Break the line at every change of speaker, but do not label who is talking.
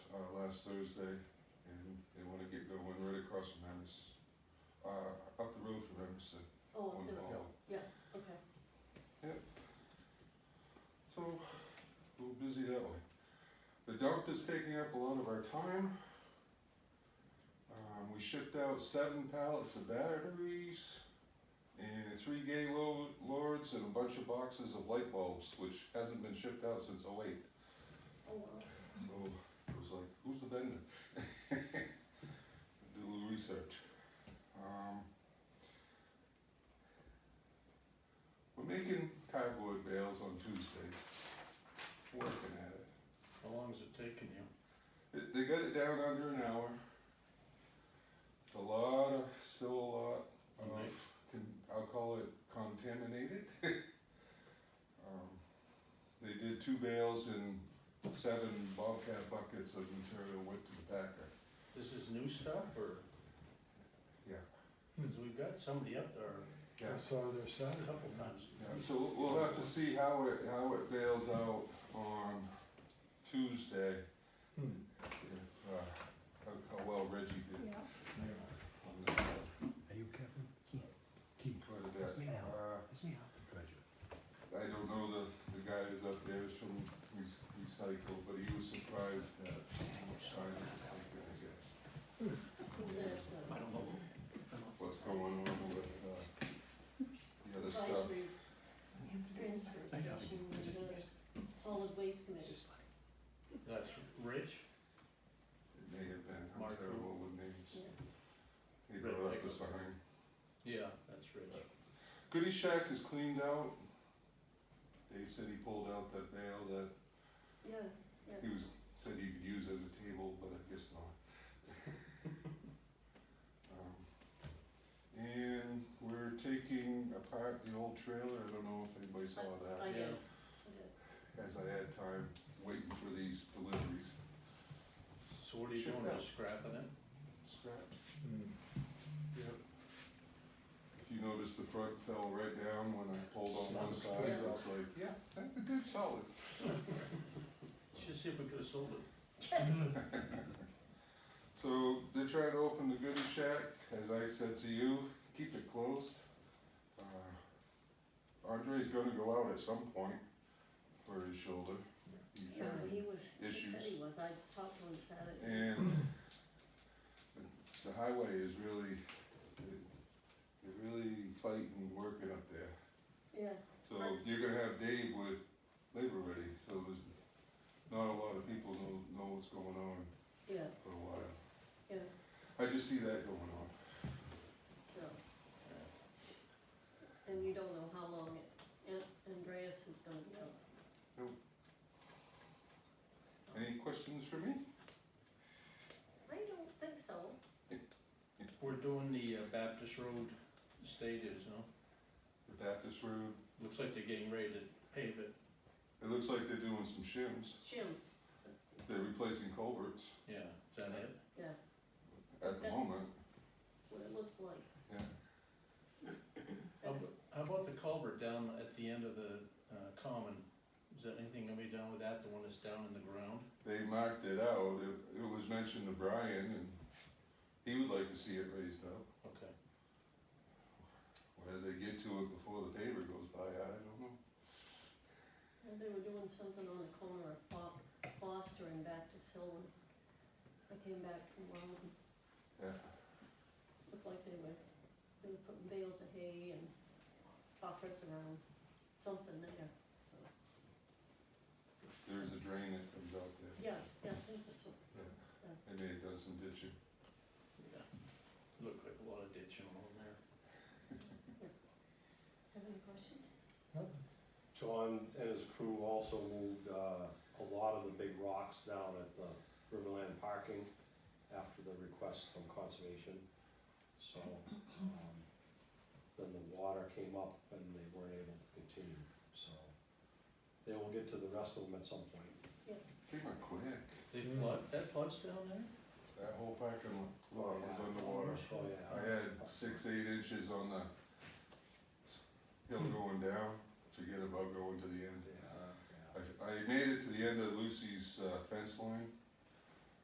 uh, last Thursday, and they wanna get going right across from Emerson, uh, up the road from Emerson.
Oh,
on
I'm doing,
Hall.
okay.
So, a little busy that way. The dump is taking up a lot of our time. Um, we shipped out seven pallets of batteries and three gay lo- lords and a bunch of boxes of light bulbs, which hasn't been shipped out since '08.
Oh, well,
So it was like, who's the vendor? Do a little research. Um, we're making cardboard bales on Tuesdays. Working at it.
How long has it taken you?
It- They got it down under an hour. It's a lot of, still a lot of,
Right.
con- I'll call it contaminated. Um, They did two bales and seven Bobcat buckets of material went to the packer.
This is new stuff or?
Yeah.
Cause we've got somebody up there
Yeah,
I saw their
a
Saturday.
couple times.
yeah, so we'll- we'll have to see how it, how it bails out on Tuesday,
Hmm,
if, uh, how, how well Reggie did
yeah.
yeah.
on the,
Are you Captain Keith? Keith,
for the,
That's me now.
uh,
that's me, I'm the treasurer.
I don't know the, the guy who's up there is from Re- Recycle, but he was surprised at how much time it was taking, I guess.
Who's that, uh,
I don't know.
What's going on with, uh, the other stuff?
Advisory
uh,
transfer
I know.
station, and the solid
It's
waste committee.
just funny.
That's Rich,
It may have been, I'm
Marco.
terrible with names. He
Red
brought up a
Lego.
sign.
yeah, that's Rich.
Goodie Shack is cleaned out. Dave said he pulled out that bale that
Yeah, yeah.
He was, said you could use as a table, but I guess not. Um, And we're taking apart the old trailer, I don't know if anybody saw
I
that,
did,
Yeah.
I did.
as I had time waiting for these deliveries.
So what are you doing, just scrapping it?
Scrap.
Hmm.
Yep. If you notice, the front fell right down when I pulled on one
Sounds
side,
good.
I was like, yeah, that's a good solid.
Let's just see if we could have sold it.
So they're trying to open the Goodie Shack, as I said to you, keep it closed. Uh, Andre's gonna go out at some point for his shoulder. He's
Yeah,
having-
he was, he said
issues.
he was, I talked to him Saturday.
And the- the highway is really, they- they're really fighting, working up there.
Yeah,
So you're gonna have Dave with labor ready, so there's not a lot of people know, know what's going on
yeah,
for a while.
yeah,
I just see that going on.
so. And you don't know how long it- An- Andreas is gonna be out.
Any questions for me?
I don't think so.
We're doing the uh, Baptist Road State is, no?
The Baptist Road,
Looks like they're getting ready to pave it,
it looks like they're doing some shims,
Shims,
they're replacing culverts
yeah, is that it?
yeah,
at the
Yes.
moment,
that's what it looks like.
yeah.
How ab- how about the culvert down at the end of the uh, common? Is that anything gonna be done with that, the one that's down in the ground?
They marked it out, it, it was mentioned to Brian, and he would like to see it raised up.
Okay,
Whether they get to it before the paver goes by, I don't know.
Yeah, They were doing something on the corner of Fo- Foster and Baptist Hill when I came back from Wyoming.
Yeah.
Looked like they were, they were putting bales of hay and coffers around, something there, so,
There's a drain that comes out there,
yeah, yeah, I think that's what,
and they had done some ditching.
yeah. Looked like a lot of ditching along there.
have any questions?
John and his crew also moved uh, a lot of the big rocks down at the Riverland parking after the request from conservation. So, um, then the water came up and they weren't able to continue, so they will get to the rest of them at some point.
Came out quick,
They
Mm.
flood, that floods down there?
that whole parking lot was underwater.
Oh,
I
yeah.
had six, eight inches on the hill going down, forget about going to the end.
Yeah, yeah.
I, I made it to the end of Lucy's uh, fence line,